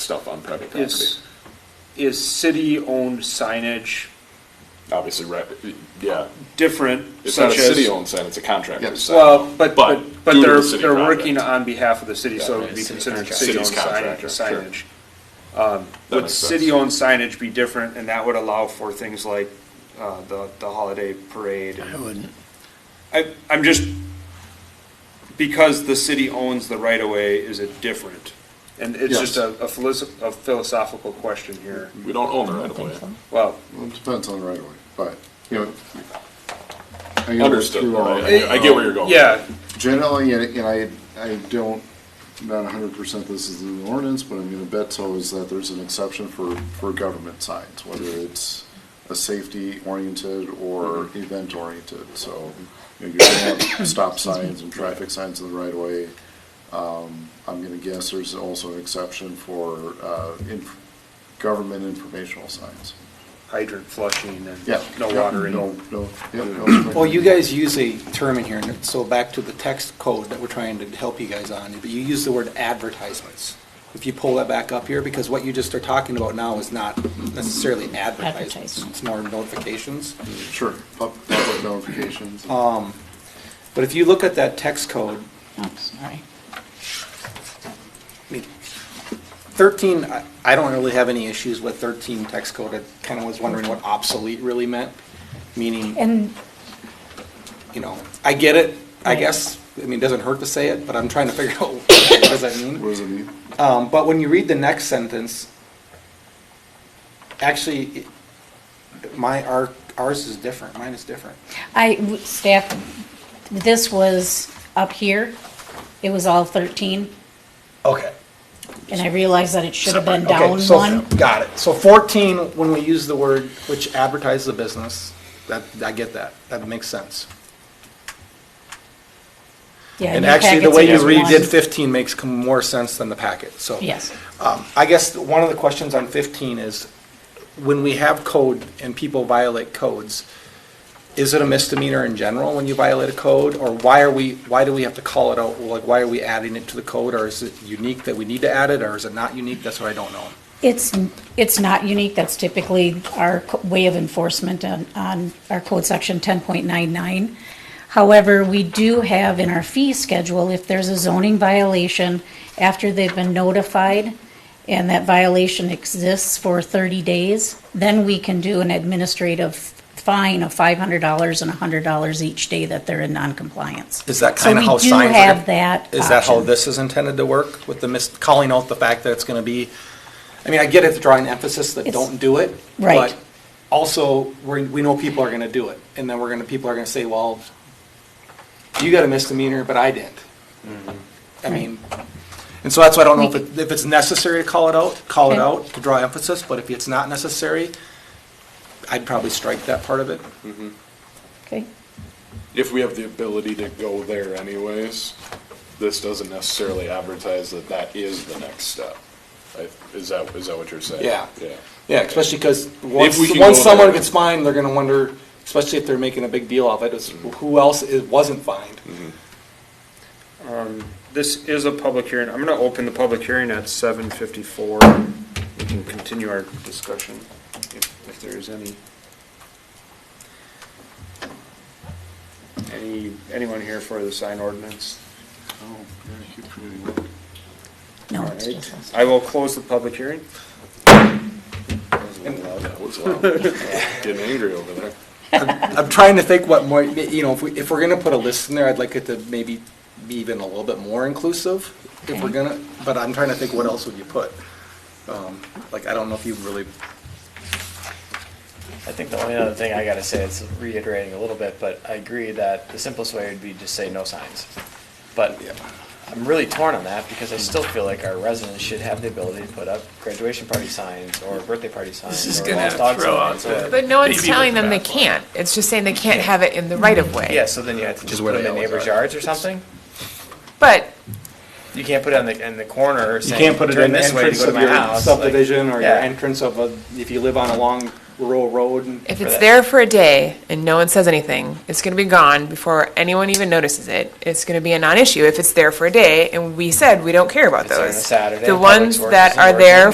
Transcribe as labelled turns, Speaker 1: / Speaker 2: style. Speaker 1: stuff on private property.
Speaker 2: Is, is city-owned signage
Speaker 1: Obviously, right, yeah.
Speaker 2: different?
Speaker 1: It's not a
Speaker 2: such as-
Speaker 1: city-owned sign, it's uh, a contractor's sign.
Speaker 2: Well, but, but, but
Speaker 1: due to
Speaker 2: they're,
Speaker 1: the city
Speaker 2: they're
Speaker 1: contract,
Speaker 2: working on behalf of the city, so it would be
Speaker 3: Yeah, city
Speaker 2: considered
Speaker 3: contract.
Speaker 2: city-owned
Speaker 1: City's
Speaker 2: signage.
Speaker 1: contract, sure.
Speaker 2: signage. Um,
Speaker 1: that
Speaker 2: Would
Speaker 1: makes sense.
Speaker 2: city-owned signage be different, and that would allow for things like, uh, the, the holiday parade? and-
Speaker 3: I wouldn't.
Speaker 2: I, I'm just, because the city owns the right-of-way, is it different? And it's
Speaker 4: Yes.
Speaker 2: just a, a philosoph- a philosophical question here.
Speaker 1: We don't own the
Speaker 3: I
Speaker 1: right
Speaker 3: don't
Speaker 1: of
Speaker 3: think
Speaker 1: way.
Speaker 3: so.
Speaker 2: Well,
Speaker 4: Well, it depends on the right of way, but, you know. I gotta work
Speaker 1: Understood,
Speaker 4: through
Speaker 1: all
Speaker 4: all
Speaker 1: right,
Speaker 4: that.
Speaker 1: I get- I get where you're going.
Speaker 2: yeah,
Speaker 4: Generally, and and I, I don't, not hundred percent this is in the ordinance, but I'm gonna bet so is that there's an exception for, for government signs, whether it's a safety oriented or event oriented, so. You know, you're gonna have stop signs and traffic signs in the right of way. Um, I'm gonna guess there's also an exception for, uh, inf- government informational signs.
Speaker 2: hydrant flushing and
Speaker 4: Yeah.
Speaker 2: no
Speaker 4: yeah,
Speaker 2: water in.
Speaker 4: No, no, yeah, no.
Speaker 3: Well, you guys use a term in here, and so back to the text code that we're trying to help you guys on, but you use the word advertisements. If you pull that back up here, because what you just are talking about now is not necessarily advertisements,
Speaker 5: Advertising.
Speaker 3: it's more notifications.
Speaker 4: Sure, pub- public notifications.
Speaker 3: Um, But if you look at that text code,
Speaker 5: Oh, sorry.
Speaker 3: I mean, 13, I- I don't really have any issues with 13 text code. I kind of was wondering what obsolete really meant, meaning,
Speaker 5: And
Speaker 3: you know, I get it, I
Speaker 5: Right.
Speaker 3: guess. I mean, it doesn't hurt to say it, but I'm trying to figure out what does that mean?
Speaker 4: What does it mean?
Speaker 3: Um, but when you read the next sentence, actually, it- my, our, ours is different, mine is different.
Speaker 5: I, staff, this was up here, it was all 13,
Speaker 3: Okay.
Speaker 5: and I realized that it should have been
Speaker 3: Okay,
Speaker 5: down
Speaker 3: so-
Speaker 5: one.
Speaker 3: Got it. So fourteen, when we use the word which advertises the business, that, I get that, that makes sense.
Speaker 5: Yeah,
Speaker 3: And
Speaker 5: your
Speaker 3: actually, the
Speaker 5: packets
Speaker 3: way
Speaker 5: are
Speaker 3: you
Speaker 5: just
Speaker 3: redid
Speaker 5: one.
Speaker 3: 15 makes com- more sense than the packet, so.
Speaker 5: Yes.
Speaker 3: Um, I guess one of the questions on 15 is, when we have code and people violate codes, is it a misdemeanor in general when you violate a code? Or why are we, why do we have to call it out? Like, why are we adding it to the code? Or is it unique that we need to add it, or is it not unique? That's what I don't know.
Speaker 5: It's, it's not unique, that's typically our co- way of enforcement on, on our code section 10.99. However, we do have in our fee schedule, if there's a zoning violation after they've been notified and that violation exists for 30 days, then we can do an administrative fine of $500 and $100 each day that they're in noncompliance.
Speaker 3: Is that kind of how
Speaker 5: So
Speaker 3: signs?
Speaker 5: we do
Speaker 3: are gonna-
Speaker 5: have that
Speaker 3: Is that how
Speaker 5: option.
Speaker 3: this is intended to work, with the mis, calling out the fact that it's gonna be, I mean, I get it, drawing emphasis that
Speaker 5: It's-
Speaker 3: don't do it.
Speaker 5: Right.
Speaker 3: but Also, we, we know people are gonna do it, and then we're gonna, people are gonna say, well, you got a misdemeanor, but I didn't.
Speaker 5: Mm-hmm.
Speaker 3: I mean, and so that's why I don't know if it, if it's necessary to call it out, call it
Speaker 5: Okay.
Speaker 3: out to draw emphasis, but if it's not necessary, I'd probably strike that part of it.
Speaker 5: Okay,
Speaker 1: If we have the ability to go there anyways, this doesn't necessarily advertise that that is the next step. I- Is that, is that what you're saying?
Speaker 3: Yeah.
Speaker 1: Yeah.
Speaker 3: Yeah, especially because once,
Speaker 1: we can
Speaker 3: once
Speaker 1: go
Speaker 3: someone
Speaker 1: there.
Speaker 3: gets fined, they're gonna wonder, especially if they're making a big deal of it, is who else is, wasn't fined?
Speaker 2: Um, This is a public hearing. I'm gonna open the public hearing at seven fifty-four. We can continue our discussion if, if there is any. Any, anyone here for the sign ordinance?
Speaker 5: no,
Speaker 2: All
Speaker 5: it's
Speaker 2: right.
Speaker 5: just us.
Speaker 2: I will close the public hearing.
Speaker 1: That was loud. Getting angry over there.
Speaker 3: I'm trying to think what more, you know, if we, if we're gonna put a list in there, I'd like it to maybe be even a little bit more inclusive, if we're
Speaker 5: Okay.
Speaker 3: gonna, but I'm trying to think what else would you put? Um, Like, I don't know if you really,
Speaker 6: I think the only other thing I gotta say, it's reiterating a little bit, but I agree that the simplest way would be to say no signs. But I'm really torn on that because I still feel like our residents should have the ability to put up graduation party signs or birthday party signs.
Speaker 7: is
Speaker 6: or
Speaker 7: gonna
Speaker 6: lost dog
Speaker 7: throw out
Speaker 6: signs
Speaker 7: the-
Speaker 6: or-
Speaker 7: But no one's
Speaker 6: Baby with
Speaker 7: telling
Speaker 6: the
Speaker 7: them they
Speaker 6: bathwater.
Speaker 7: can't. It's just saying they can't have it in the right of way.
Speaker 6: Mm-hmm. Yeah, so then you have to
Speaker 3: is
Speaker 6: just
Speaker 3: where
Speaker 6: put them
Speaker 3: they
Speaker 6: in
Speaker 3: always
Speaker 6: neighbor's
Speaker 3: are.
Speaker 6: yards or something?
Speaker 7: But
Speaker 6: You can't put it on the, in the corner
Speaker 3: you
Speaker 6: saying,
Speaker 3: can't put it
Speaker 6: turn
Speaker 3: in the
Speaker 6: this way to
Speaker 3: entrance
Speaker 6: go to
Speaker 3: of
Speaker 6: my
Speaker 3: your
Speaker 6: house. like-
Speaker 3: subdivision or your
Speaker 6: Yeah.
Speaker 3: entrance of a, if you live on a long rural road and.
Speaker 7: if
Speaker 6: For
Speaker 7: it's
Speaker 6: that.
Speaker 7: there for a day and no one says anything, it's going to be gone before anyone even notices it. It's going to be a non-issue if it's there for a day, and we said we don't care about
Speaker 6: It's there on a
Speaker 7: those.
Speaker 6: Saturday,
Speaker 7: The
Speaker 6: Public
Speaker 7: ones
Speaker 6: Works
Speaker 7: that
Speaker 6: isn't
Speaker 7: are there
Speaker 6: working.